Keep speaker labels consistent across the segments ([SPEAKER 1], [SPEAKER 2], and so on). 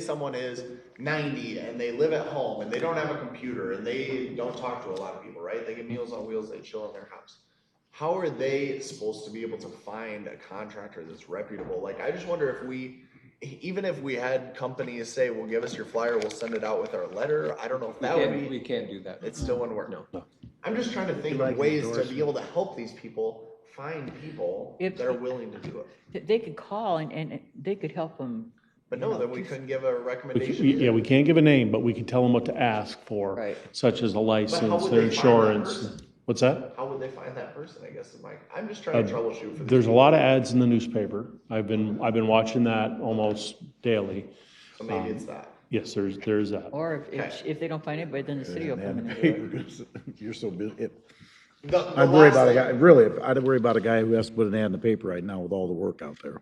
[SPEAKER 1] someone is ninety and they live at home and they don't have a computer and they don't talk to a lot of people, right? They get
[SPEAKER 2] Mm-hmm.
[SPEAKER 1] Meals on Wheels, they chill in their house. How are they supposed to be able to find a contractor that's reputable? Like, I just wonder if we, even if we had companies say, well, give us your flyer, we'll send it out with our letter, I don't know if
[SPEAKER 2] We
[SPEAKER 1] that would be.
[SPEAKER 2] can't, we can't do that.
[SPEAKER 1] It still wouldn't work.
[SPEAKER 2] No.
[SPEAKER 1] I'm just trying to think
[SPEAKER 3] like
[SPEAKER 1] of
[SPEAKER 3] an
[SPEAKER 1] ways to be
[SPEAKER 3] endorsement.
[SPEAKER 1] able to help these people find people
[SPEAKER 4] It's-
[SPEAKER 1] that are willing to do it.
[SPEAKER 4] Th- They could call and, and they could help them.
[SPEAKER 1] But no, then we couldn't give a
[SPEAKER 3] We c-
[SPEAKER 1] recommendation.
[SPEAKER 3] we- Yeah,
[SPEAKER 1] either.
[SPEAKER 3] we can't give a name, but we can tell them what to ask for,
[SPEAKER 4] Right.
[SPEAKER 3] such as a license,
[SPEAKER 1] would
[SPEAKER 3] their
[SPEAKER 1] they find that
[SPEAKER 3] insurance.
[SPEAKER 1] person?
[SPEAKER 3] What's that?
[SPEAKER 1] How would they find that person? I guess is my. I'm just trying to
[SPEAKER 3] Uh,
[SPEAKER 1] troubleshoot for.
[SPEAKER 3] There's
[SPEAKER 1] these
[SPEAKER 3] a lot of ads in the newspaper. I've been, I've been watching that almost daily.
[SPEAKER 1] people. So maybe it's that.
[SPEAKER 3] Yes, there's, there's that.
[SPEAKER 4] Or if- if,
[SPEAKER 1] Okay.
[SPEAKER 4] if they don't find anybody, then the city will come in and do it.
[SPEAKER 5] papers. You're so busy. It-
[SPEAKER 1] The- the
[SPEAKER 5] I'd worry
[SPEAKER 1] last
[SPEAKER 5] about a
[SPEAKER 1] thing-
[SPEAKER 5] guy, really, I'd worry about a guy who has to put an ad in the paper right now with all the work out there.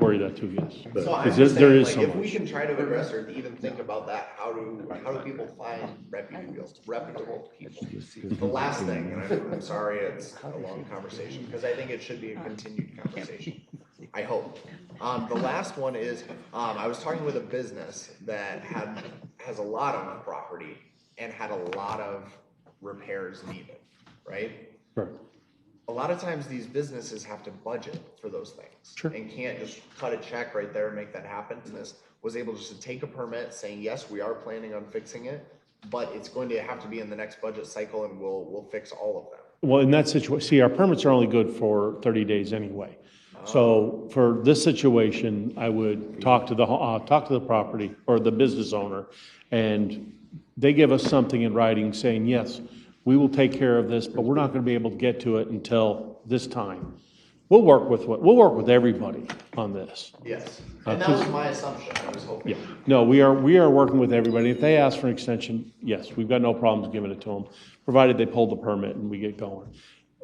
[SPEAKER 3] Worry that too, yes.
[SPEAKER 1] So I'm
[SPEAKER 3] Because
[SPEAKER 1] just
[SPEAKER 3] there- there
[SPEAKER 1] saying, like,
[SPEAKER 3] is so
[SPEAKER 1] if we
[SPEAKER 3] much.
[SPEAKER 1] can try to address or even think about that, how do, how do people find reputable, reputable people? The last thing, and I'm, I'm sorry, it's a long conversation, because I think it should be a continued conversation, I hope. Um, the last one is, um, I was talking with a business that had, has a lot on the property and had a lot of repairs needed, right?
[SPEAKER 3] Right.
[SPEAKER 1] a lot of times these businesses have to budget for those things.
[SPEAKER 3] Sure.
[SPEAKER 1] And can't just cut a check right there and make that happen. And this was able just to take a permit saying, yes, we are planning on fixing it, but it's going to have to be in the next budget cycle and we'll, we'll fix all of them.
[SPEAKER 3] Well, in that situation, see, our permits are only good for 30 days anyway. So for this situation, I would talk to the, uh, talk to the property or the business owner, and they give us something in writing saying, yes, we will take care of this, but we're not going to be able to get to it until this time. We'll work with, what we'll work with everybody on this.
[SPEAKER 1] Yes. And that
[SPEAKER 3] Uh,
[SPEAKER 1] was my assumption. I was hoping.
[SPEAKER 3] Yeah, no, we are, we are working with everybody. If they ask for an extension, yes, we've got no problems giving it to them, provided they pull the permit and we get going.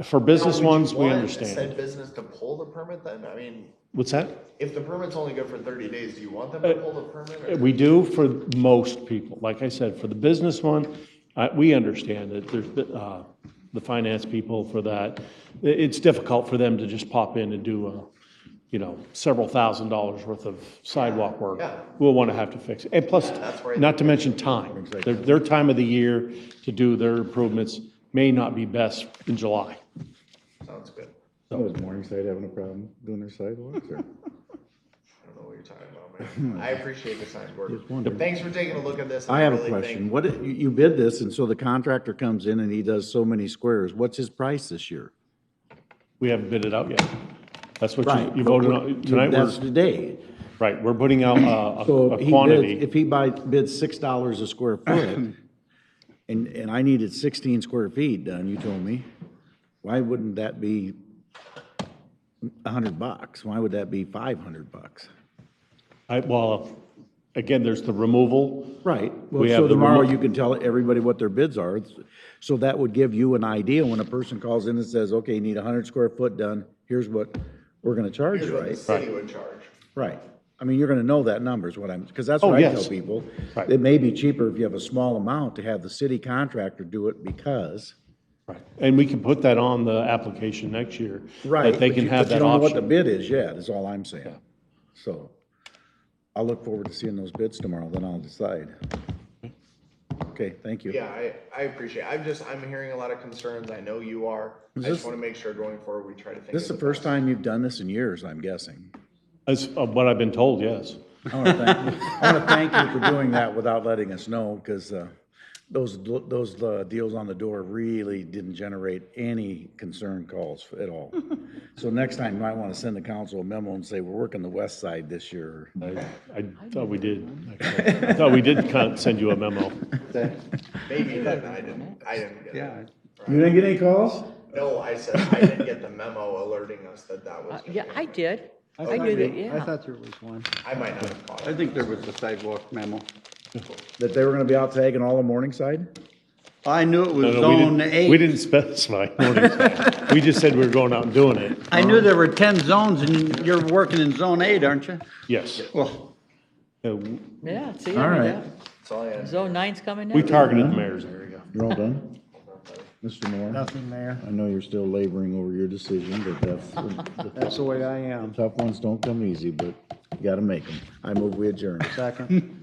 [SPEAKER 3] For
[SPEAKER 1] Now,
[SPEAKER 3] business
[SPEAKER 1] would you
[SPEAKER 3] ones, we
[SPEAKER 1] want
[SPEAKER 3] understand.
[SPEAKER 1] Said business to pull the permit then? I mean,
[SPEAKER 3] What's that?
[SPEAKER 1] if the permit's only good for thirty days, do you want them to pull the permit? or-
[SPEAKER 3] Uh, We do for most people. Like I said, for the business one, uh, we understand that there's, uh, the finance people for that. It- It's difficult for them to just pop in and do, a, you know, several thousand dollars worth of sidewalk work.
[SPEAKER 1] Yeah.
[SPEAKER 3] We'll want to have to fix it. And plus,
[SPEAKER 1] that's where I
[SPEAKER 3] not to mention time. Their, their time of the year to do their improvements may not be best in July.
[SPEAKER 1] Sounds good.
[SPEAKER 5] Was Morningside having a problem doing their sidewalks or?
[SPEAKER 1] I don't know what you're talking about,
[SPEAKER 3] Hmm.
[SPEAKER 1] man. I appreciate the signed work.
[SPEAKER 5] Just wondering.
[SPEAKER 1] Thanks for taking a look at this.
[SPEAKER 5] I have a
[SPEAKER 1] really think-
[SPEAKER 5] question. What, you, you bid this and so the contractor comes in and he does so many squares. What's his price this year?
[SPEAKER 3] We haven't bid it out yet. That's what you- you voted on tonight.
[SPEAKER 5] That's
[SPEAKER 3] We're,
[SPEAKER 5] today.
[SPEAKER 3] right, we're putting out uh,
[SPEAKER 5] So
[SPEAKER 3] a
[SPEAKER 5] if
[SPEAKER 3] a
[SPEAKER 5] he
[SPEAKER 3] quantity.
[SPEAKER 5] bids, if he buys, bids six dollars a square foot, and, and I needed sixteen square feet done, you told me, why wouldn't that be a hundred bucks? Why would that be five hundred bucks?
[SPEAKER 3] I, well, again, there's the removal.
[SPEAKER 5] Right, well,
[SPEAKER 3] We have
[SPEAKER 5] so
[SPEAKER 3] the
[SPEAKER 5] tomorrow
[SPEAKER 3] remote-
[SPEAKER 5] you can tell everybody what their bids are, so that would give you an idea when a person calls in and says, okay, you need a hundred square foot done, here's what we're gonna charge
[SPEAKER 1] Here's
[SPEAKER 5] you,
[SPEAKER 1] what the
[SPEAKER 5] right?
[SPEAKER 1] city would charge.
[SPEAKER 5] Right. I mean, you're gonna know that number is what I'm, because that's
[SPEAKER 3] Oh,
[SPEAKER 5] what I tell
[SPEAKER 3] yes.
[SPEAKER 5] people.
[SPEAKER 3] Right.
[SPEAKER 5] It may be cheaper if you have a small amount to have the city contractor do it because.
[SPEAKER 3] Right. And we can put that on the application next year.
[SPEAKER 5] Right.
[SPEAKER 3] That they
[SPEAKER 5] but
[SPEAKER 3] can
[SPEAKER 5] you-
[SPEAKER 3] have
[SPEAKER 5] but
[SPEAKER 3] that
[SPEAKER 5] you don't know What the
[SPEAKER 3] option.
[SPEAKER 5] bid is yet, is all I'm saying. So I'll look forward to seeing those bids tomorrow, then I'll decide.
[SPEAKER 3] Mm-hmm.
[SPEAKER 5] Okay, thank you.
[SPEAKER 1] Yeah, I, I appreciate, I'm just, I'm hearing a lot of concerns, I know you are, I
[SPEAKER 5] this-
[SPEAKER 1] just wanna make sure going forward, we try to think.
[SPEAKER 5] This is the
[SPEAKER 1] of
[SPEAKER 5] first
[SPEAKER 1] best.
[SPEAKER 5] time you've done this in years, I'm guessing.
[SPEAKER 3] That's uh, what I've been told, yes.
[SPEAKER 5] I want to thank, I want to thank you for doing that without letting us know, because those, those uh, deals on the door really didn't generate any concern calls at all. So next time, you might want to send the council a memo and say, we're working the west side this year.
[SPEAKER 3] I, I thought we did. actually. I thought we did con- send you a memo.
[SPEAKER 1] Maybe you didn't, I didn't, I didn't get it.
[SPEAKER 5] You didn't get any calls?
[SPEAKER 1] No, I said, I didn't get the memo alerting us that that was.
[SPEAKER 4] Uh,
[SPEAKER 1] gonna
[SPEAKER 4] Yeah,
[SPEAKER 1] be
[SPEAKER 4] I
[SPEAKER 1] happening.
[SPEAKER 4] did. I
[SPEAKER 6] thought
[SPEAKER 4] knew that,
[SPEAKER 6] we- I
[SPEAKER 4] yeah.
[SPEAKER 6] thought there was one.
[SPEAKER 1] I might not have caught
[SPEAKER 6] I
[SPEAKER 1] it.
[SPEAKER 6] think there was a sidewalk memo.
[SPEAKER 5] That they were going to be out tagging all of Morningside?
[SPEAKER 6] I knew it was
[SPEAKER 3] No, no, we
[SPEAKER 6] zone
[SPEAKER 3] didn't- We
[SPEAKER 6] eight.
[SPEAKER 3] didn't specify. We just said we were going out and doing it.
[SPEAKER 6] I knew there were ten zones and you're working in zone eight, aren't you?
[SPEAKER 3] Yes.
[SPEAKER 6] Well,
[SPEAKER 3] Uh, w-
[SPEAKER 4] Yeah, see,
[SPEAKER 5] All
[SPEAKER 4] I
[SPEAKER 5] right.
[SPEAKER 4] knew that.
[SPEAKER 1] That's all I had.
[SPEAKER 4] Zone nine's coming
[SPEAKER 3] We
[SPEAKER 4] next.
[SPEAKER 3] targeted the mayor's area.
[SPEAKER 5] You're all done? Mr. Mayor,
[SPEAKER 6] Nothing, Mayor.
[SPEAKER 5] I know you're still laboring over your decision, but that's, the
[SPEAKER 6] That's the way I am.
[SPEAKER 5] tough ones don't come easy, but you gotta make them. I move we adjourn.
[SPEAKER 6] Second.